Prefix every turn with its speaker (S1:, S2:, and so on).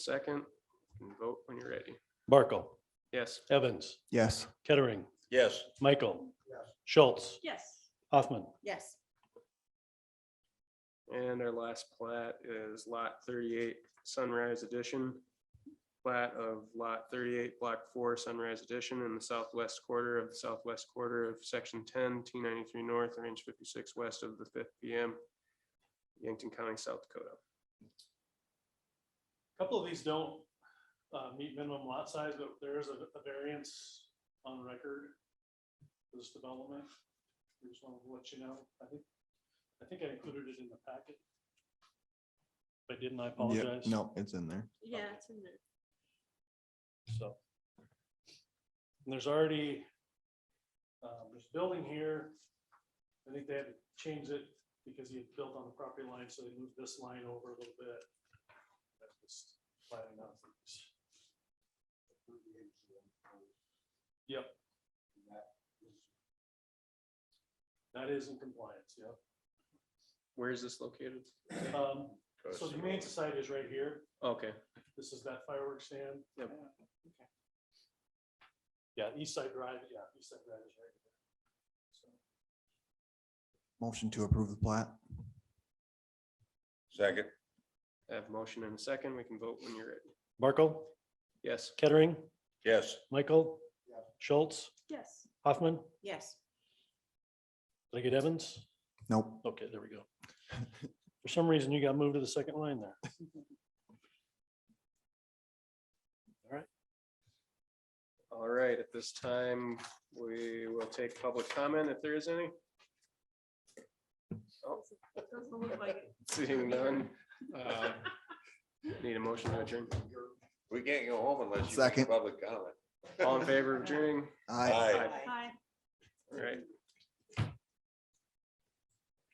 S1: second and vote when you're ready.
S2: Barkle,
S1: Yes.
S2: Evans,
S3: Yes.
S2: Kettering,
S4: Yes.
S2: Michael, Schultz,
S5: Yes.
S2: Hoffman.
S5: Yes.
S1: And our last plat is lot thirty-eight Sunrise Edition. Plat of lot thirty-eight, block four Sunrise Edition in the southwest quarter of the southwest quarter of section 10, 293 north, range fifty-six west of the fifth PM. Yankton County, South Dakota.
S2: A Couple of these don't uh, meet minimum lot size, but there is a a variance on record for this development. I Just wanted to let you know, I think, I think I included it in the packet. If I didn't, I
S3: Yeah,
S2: apologize.
S3: no, it's in there.
S5: Yeah, it's in there.
S2: So. And there's already, um, there's building here. I think they had to change it because he had built on the property line, so they moved this line over a little bit. That's just planning on things. Yep. That is in compliance, yep.
S1: Where is this located?
S2: Um, so the Humane Society is right here.
S1: Okay,
S2: This is that fireworks stand?
S1: Yep.
S2: Okay. Yeah, East Side Drive, yeah, East Side Drive is right there. So,
S3: Motion to approve the plat.
S4: Second.
S1: I have motion and a second. We can vote when you're ready.
S2: Barkle,
S1: Yes.
S2: Kettering,
S4: Yes.
S2: Michael,
S3: Yeah.
S2: Schultz,
S5: Yes.
S2: Hoffman,
S5: Yes.
S2: did I get Evans?
S3: Nope.
S2: Okay, there we go. For some reason, you got moved to the second line there.
S1: All right, at this time, we will take public comment if there is any.
S5: Doesn't look like it.
S1: Seeing none. uh, Need a motion to adjourn.
S4: We can't go home unless you make
S3: Second.
S4: public comment.
S1: All in favor of adjourning?
S3: Aye.
S4: Aye.
S5: Hi.
S1: All right,